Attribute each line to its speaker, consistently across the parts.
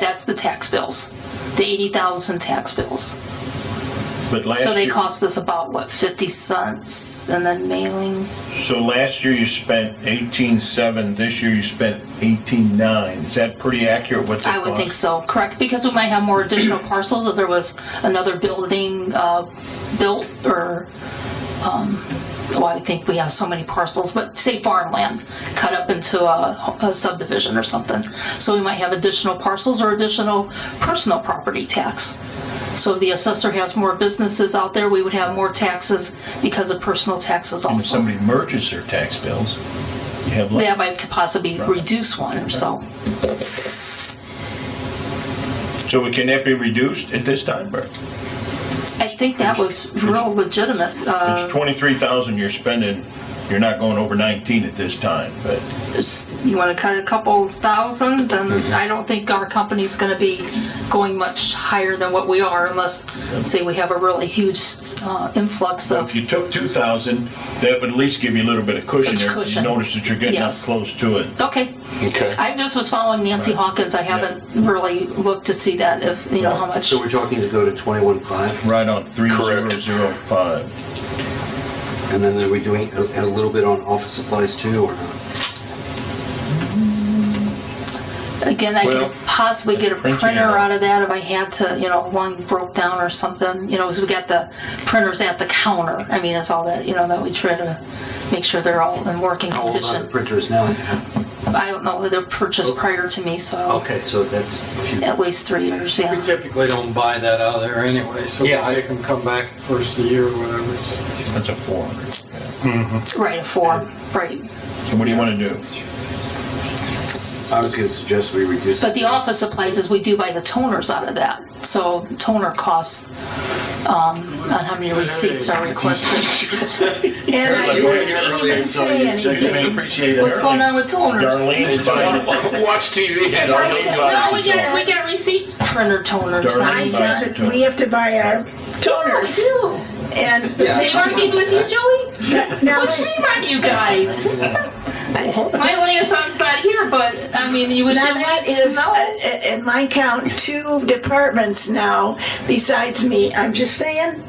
Speaker 1: that's the tax bills, the eighty thousand tax bills.
Speaker 2: But last
Speaker 1: So they
Speaker 2: year,
Speaker 1: cost us about what fifty cents, and then mailing.
Speaker 2: so last year you spent eighteen seven. This year you spent eighteen nine. Is that pretty accurate? What
Speaker 1: I would think so, correct? Because we might have more additional parcels if there was another building uh, built or, um, well, I think we have so many parcels, but say farmland cut up into a a subdivision or something. So we might have additional parcels or additional personal property tax. So if the assessor has more businesses out there, we would have more taxes because of personal taxes
Speaker 2: If
Speaker 1: also.
Speaker 2: somebody merges their tax bills, you have less.
Speaker 1: That might possibly reduce one or so.
Speaker 2: So can that be reduced at this time, Bert?
Speaker 1: I think that was real legitimate. uh,
Speaker 2: It's twenty-three thousand you're spending. You're not going over nineteen at this time, but
Speaker 1: just- you want to cut a couple thousand,
Speaker 3: Mm-hmm.
Speaker 1: then I don't think our company's going to be going much higher than what we are unless, say, we have a really huge uh, influx
Speaker 2: if
Speaker 1: of,
Speaker 2: you took two thousand, that would at least give you a little bit of cushion
Speaker 1: It's
Speaker 2: there. 'cause You
Speaker 1: cushion.
Speaker 2: notice that you're getting up
Speaker 1: Yes.
Speaker 2: close to it.
Speaker 1: okay.
Speaker 4: Okay.
Speaker 1: I just was following Nancy Hawkins. I haven't really looked to see that if, you know, how much.
Speaker 3: So we're talking to go to 21.5,
Speaker 2: Right on three zero
Speaker 4: Correct.
Speaker 2: zero five.
Speaker 3: and then are we doing a, a little bit on office supplies too, or not?
Speaker 1: Again, I
Speaker 4: Well,
Speaker 1: could possibly get a
Speaker 2: printing
Speaker 1: printer
Speaker 2: out.
Speaker 1: out of that if I had to, you know, one broke down or something, you know, 'cause we got the printers at the counter. I mean, that's all that, you know, that we try to make sure they're all in working
Speaker 3: How old are the
Speaker 1: condition.
Speaker 3: printers now?
Speaker 1: I don't know, they're purchased prior to me, so
Speaker 3: Okay, so that's a few.
Speaker 1: at least three years,
Speaker 5: We
Speaker 1: yeah.
Speaker 5: typically don't buy that out of there anyway, so we
Speaker 4: Yeah, I-
Speaker 5: make them come back first of the year or whatever.
Speaker 2: That's a four hundred.
Speaker 1: Right, a four, right.
Speaker 2: So what do you want to do?
Speaker 3: I was going to suggest we reduce.
Speaker 1: But the
Speaker 3: it.
Speaker 1: office supplies is we do buy the toners out of that. So toner costs, um, on how many receipts are requested.
Speaker 6: And I didn't even say anything.
Speaker 2: appreciate it.
Speaker 1: What's going on with toners?
Speaker 2: Darlene's buying,
Speaker 4: Watch TV.
Speaker 6: I said,
Speaker 1: No, we
Speaker 6: no,
Speaker 1: get, we get receipts, printer toners.
Speaker 6: I
Speaker 2: Darlene.
Speaker 1: I-
Speaker 6: said that we have to buy our
Speaker 1: Yeah, we
Speaker 6: toners,
Speaker 1: do.
Speaker 6: and
Speaker 1: They argued with you, Joey?
Speaker 6: now,
Speaker 1: Well, shame on you guys. My liaison's not here, but, I mean, you would
Speaker 6: now
Speaker 1: have
Speaker 6: that
Speaker 1: had to
Speaker 6: is, uh,
Speaker 1: know.
Speaker 6: uh, in my count, two departments now besides me. I'm just saying,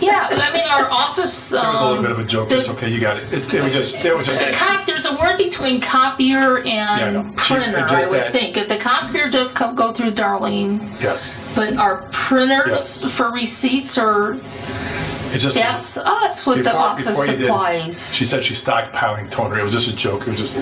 Speaker 1: Yeah, I mean, our office,
Speaker 7: It was a little
Speaker 1: um,
Speaker 7: bit of a joke. It's okay, you got it. It, it was just, it was just.
Speaker 1: the cop, there's a word between copier
Speaker 7: I know.
Speaker 1: and
Speaker 7: She-
Speaker 1: printer,
Speaker 7: it
Speaker 1: I
Speaker 7: just
Speaker 1: would
Speaker 7: that-
Speaker 1: think. If the copier does come, go through Darlene,
Speaker 7: Yes,
Speaker 1: but our printers
Speaker 7: Yeah.
Speaker 1: for receipts are,
Speaker 7: it just.
Speaker 1: that's us with the
Speaker 7: before-
Speaker 1: office
Speaker 7: before you did,
Speaker 1: supplies.
Speaker 7: She said she's stockpiling toner. It was just a joke. It was just.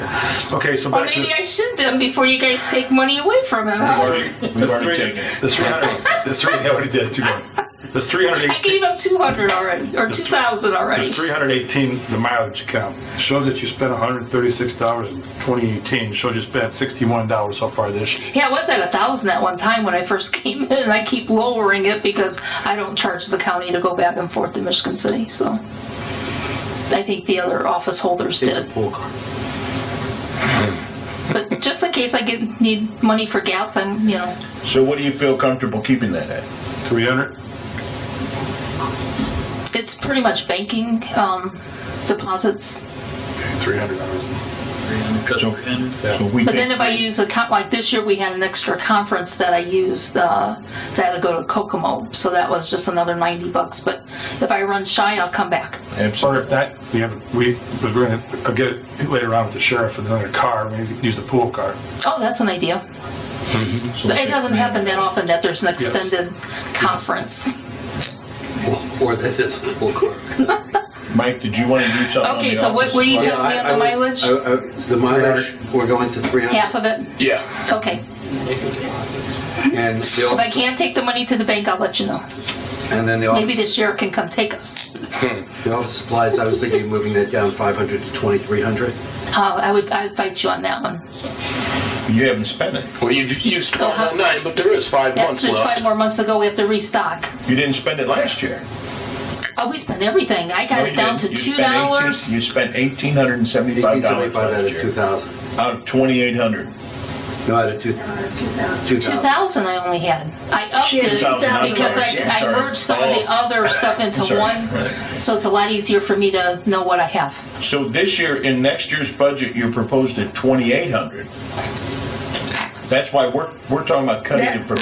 Speaker 7: Okay, so
Speaker 1: Or
Speaker 7: back to
Speaker 1: maybe
Speaker 7: this-
Speaker 1: I should then before you guys take money away from it.
Speaker 2: we've
Speaker 1: huh?
Speaker 2: already, we've already taken it.
Speaker 7: this three hundred. This three. Yeah, what it is, two months. This three hundred
Speaker 1: I
Speaker 7: eighteen.
Speaker 1: gave up two hundred already, or two thousand already.
Speaker 7: This three hundred eighteen. The mileage account shows that you spent one hundred thirty-six dollars in twenty eighteen. Shows you spent sixty-one dollars so far this year.
Speaker 1: Yeah, I was at a thousand at one time when I first came in, and I keep lowering it because I don't charge the county to go back and forth to Michigan City, so. I think the other office holders
Speaker 3: It's a
Speaker 1: did,
Speaker 3: poll card.
Speaker 1: but just in case I get, need money for gas, I'm, you know,
Speaker 2: So what do you feel comfortable keeping that at?
Speaker 7: Three hundred.
Speaker 1: it's pretty much banking, um, deposits.
Speaker 7: Three hundred dollars.
Speaker 2: So, so we
Speaker 1: But then
Speaker 2: take,
Speaker 1: if I use a comp, like this year, we had an extra conference that I used, uh, that had to go to Kokomo, so that was just another ninety bucks, but if I run shy, I'll come back.
Speaker 7: Sorry
Speaker 2: absolutely,
Speaker 7: if that, we have, we, we're gonna, I'll get it later on with the sheriff and another car, maybe we could use the pool car.
Speaker 1: Oh, that's an idea.
Speaker 2: Mm-hmm.
Speaker 1: But It doesn't happen that often that there's an extended conference.
Speaker 3: Or or that is a poll card.
Speaker 2: Mike, did you want to do something? on
Speaker 1: Okay,
Speaker 2: the
Speaker 1: so what
Speaker 2: office
Speaker 1: were you
Speaker 2: supply?
Speaker 3: Yeah,
Speaker 1: telling me
Speaker 3: I- I
Speaker 1: on the
Speaker 3: was-
Speaker 1: mileage?
Speaker 3: I- I- The mileage, we're going to 300.
Speaker 1: Half of it?
Speaker 4: Yeah.
Speaker 1: Okay.
Speaker 3: And the
Speaker 1: If I
Speaker 3: office,
Speaker 1: can't take the money to the bank, I'll let you know.
Speaker 3: and then the
Speaker 1: Maybe the
Speaker 3: office,
Speaker 1: sheriff can come take us.
Speaker 3: the office supplies, I was thinking of moving that down 500 to 2,300.
Speaker 1: Uh, I would, I'd fight you on that one.
Speaker 2: You haven't spent it.
Speaker 4: Well, you've used 1209, but there is five
Speaker 1: That's
Speaker 4: months
Speaker 1: just five
Speaker 4: left.
Speaker 1: more months to go. We have to restock.
Speaker 2: You didn't spend it last year.
Speaker 1: Oh, we spent everything. I got
Speaker 2: No,
Speaker 1: it
Speaker 2: you
Speaker 1: down to
Speaker 2: didn't. You
Speaker 1: two
Speaker 2: spent 18 You
Speaker 1: dollars.
Speaker 2: spent eighteen hundred and seventy-five dollars
Speaker 3: 1,875 out
Speaker 2: last
Speaker 3: of
Speaker 2: year,
Speaker 3: 2,000.
Speaker 2: out of twenty-eight hundred.
Speaker 3: No, out of 2,
Speaker 1: Uh, Two
Speaker 3: 2,000.
Speaker 1: thousand I only had. I upped
Speaker 6: She had
Speaker 1: it
Speaker 6: 2,000
Speaker 2: dollars.
Speaker 1: because
Speaker 2: Yeah,
Speaker 1: I, I
Speaker 2: sorry.
Speaker 1: merged some of the
Speaker 2: Oh.
Speaker 1: other stuff into
Speaker 2: Sorry.
Speaker 1: one,
Speaker 2: Right.
Speaker 1: so it's a lot easier for me to know what I have.
Speaker 2: So this year, in next year's budget, you proposed at twenty-eight hundred.
Speaker 6: That's why we're, we're talking about cutting it
Speaker 2: That's-
Speaker 6: from